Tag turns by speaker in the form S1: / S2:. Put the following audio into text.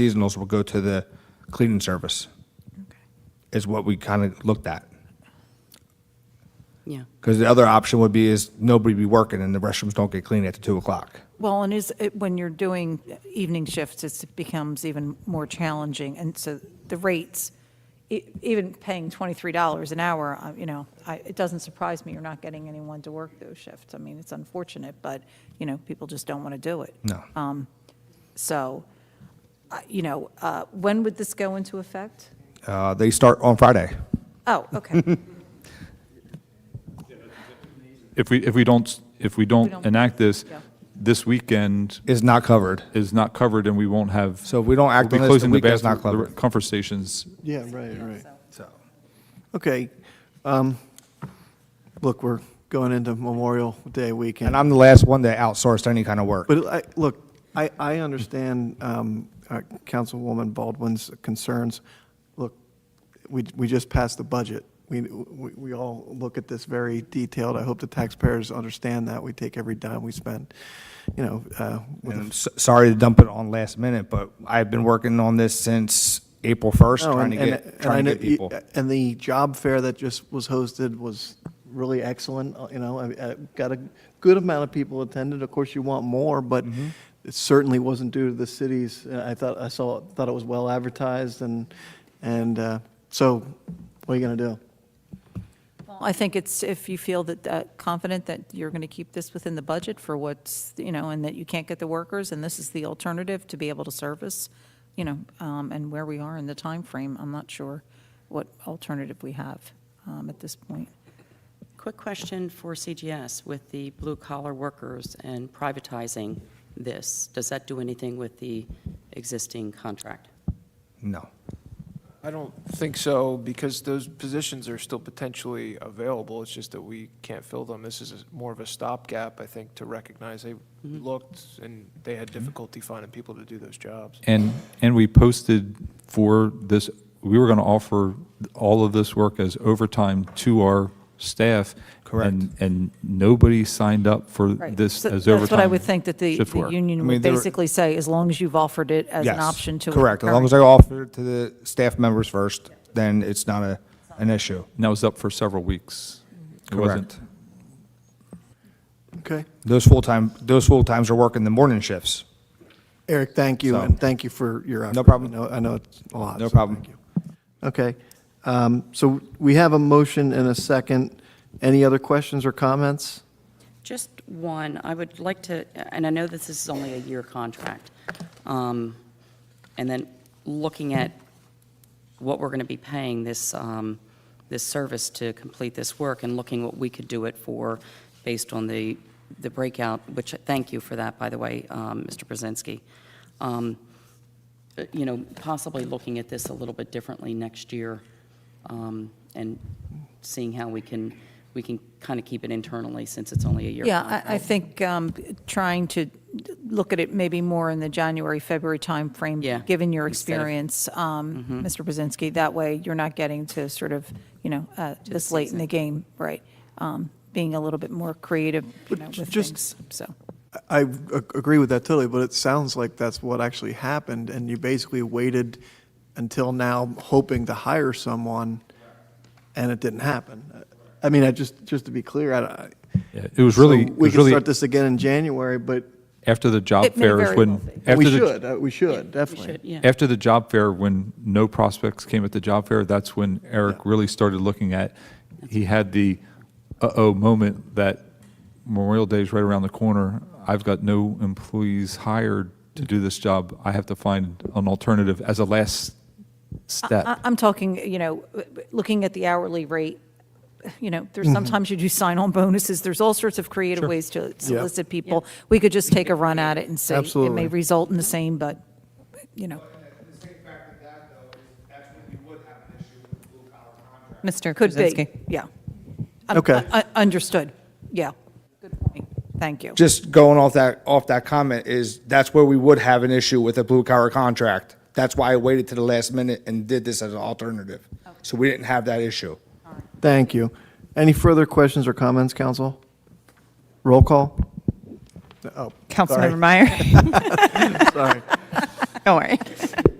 S1: seasonals will go to the cleaning service, is what we kind of looked at.
S2: Yeah.
S1: Because the other option would be is nobody be working and the restrooms don't get cleaned at the 2 o'clock.
S3: Well, and is, it- when you're doing evening shifts, it becomes even more challenging, and so the rates, e- even paying $23 an hour, I- you know, I, it doesn't surprise me you're not getting anyone to work those shifts. I mean, it's unfortunate, but, you know, people just don't want to do it.
S1: No.
S3: So, I- you know, uh, when would this go into effect?
S1: Uh, They start on Friday.
S3: Oh, okay.
S4: If we, if we don't, if we don't
S3: don't-
S4: enact this,
S3: yeah.
S4: this weekend
S1: It's not covered.
S4: is not covered and we won't have.
S1: So if we don't act
S4: we'll be
S1: on this, the
S4: closing
S1: weekend's
S4: bathroom-
S1: not covered.
S4: the Comfort stations.
S5: Yeah, right, right.
S1: So
S5: Okay. um, Look, we're going into Memorial Day weekend.
S1: And I'm the last one that outsourced any kind of work.
S5: But I, look, I, I understand um, uh, Councilwoman Baldwin's concerns. Look, we, we just passed the budget. We, we we all look at this very detailed. I hope the taxpayers understand that. We take every dime we spend, you know, uh, with
S1: And
S5: a
S1: I'm s- sorry to dump it on last minute, but I've been working on this since April 1st,
S5: No,
S1: trying to
S5: Oh, and-
S1: get,
S5: and-
S1: trying
S5: and I
S1: to get
S5: know- uh,
S1: people.
S5: And the job fair that just was hosted was really excellent, uh, you know, I, I got a good amount of people attended. Of course, you want more, but
S1: Mm-hmm.
S5: it certainly wasn't due to the cities. Uh, I thought, I saw, thought it was well advertised and, and, uh, so what are you gonna do?
S3: Well, I think it's, if you feel that, uh, confident that you're going to keep this within the budget for what's, you know, and that you can't get the workers, and this is the alternative to be able to service, you know, um, and where we are in the time frame, I'm not sure what alternative we have um, at this point.
S2: Quick question for CGS with the blue collar workers and privatizing this. Does that do anything with the existing contract?
S1: No.
S6: I don't think so, because those positions are still potentially available. It's just that we can't fill them. This is a- more of a stopgap, I think, to recognize they looked and they had difficulty finding people to do those jobs.
S4: And, and we posted for this, we were going to offer all of this work as overtime to our staff.
S1: Correct.
S4: And, and nobody signed up for
S3: Right.
S4: this
S3: So
S4: as overtime.
S3: That's what I would think that the,
S4: shift
S3: the
S4: work.
S1: I
S3: union
S1: mean,
S3: would
S1: they were-
S3: basically say, as long as you've offered it as an
S1: Yes,
S3: option to. a
S1: Correct. As long
S3: current-
S1: as I offer it to the staff members first, then it's not a, an issue.
S4: And that was up for several weeks. It wasn't-
S1: Correct.
S5: Okay?
S1: Those full-time, those full-times are working the morning shifts.
S5: Eric, thank you,
S1: So-
S5: and thank you for your effort.
S1: No problem.
S5: I know, I know it's a lot.
S1: No
S5: so
S1: problem.
S5: thank you. Okay, um, so we have a motion and a second. Any other questions or comments?
S2: Just one, I would like to, and I know this is only a year contract, um, and then looking at what we're going to be paying this, um, this service to complete this work, and looking what we could do it for based on the, the breakout, which, thank you for that, by the way, um, Mr. Brzezinski. Um, uh, You know, possibly looking at this a little bit differently next year, um, and seeing how we can, we can kind of keep it internally since it's only a year
S3: Yeah, I, I
S2: contract.
S3: think um, trying to look at it maybe more in the January, February timeframe.
S2: Yeah,
S3: Given your
S2: instead of- Mm-hmm.
S3: experience, um, Mr. Brzezinski, that way you're not getting to sort of, you know, uh, this late in the game, right? Um, Being a little bit more creative, you know,
S5: j-
S3: with
S5: just-
S3: things, so.
S5: I ag- agree with that totally, but it sounds like that's what actually happened, and you basically waited until now hoping to hire someone, and it didn't happen. I mean, I just, just to be clear, I, I-
S4: Yeah, It was really,
S5: So
S4: it
S5: We
S4: was
S5: can
S4: really
S5: start this again in January, but
S4: after the job
S3: It may
S4: fair
S3: very
S4: is
S3: well
S4: when.
S3: be.
S4: after
S5: we
S4: the-
S5: should, uh, we should,
S2: We
S5: definitely.
S2: should, yeah.
S4: After the job fair, when no prospects came at the job fair, that's when Eric really started looking at, he had the uh-oh moment that Memorial Day is right around the corner. I've got no employees hired to do this job. I have to find an alternative as a last
S3: I-
S4: step.
S3: I'm talking, you know, looking at the hourly rate, you know,
S2: Mm-hmm.
S3: there's sometimes you do sign-on bonuses, there's all sorts of creative ways to solicit people. We could just take a run at it and say it may
S5: Absolutely.
S3: result in the same, but, you know,
S7: Mr.
S3: could
S7: Kuzinski.
S3: be, yeah.
S2: Um,
S3: Un-
S5: Okay.
S2: uh,
S3: un- Understood, yeah. Good point, thank you.
S1: Just going off that, off that comment is, that's where we would have an issue with a blue-collar contract. That's why I waited to the last minute and did this as an alternative. So we didn't have that issue.
S5: Thank you. Any further questions or comments, council? Roll call? Oh,
S7: Councilmember Meyer.
S5: sorry.
S7: Don't worry.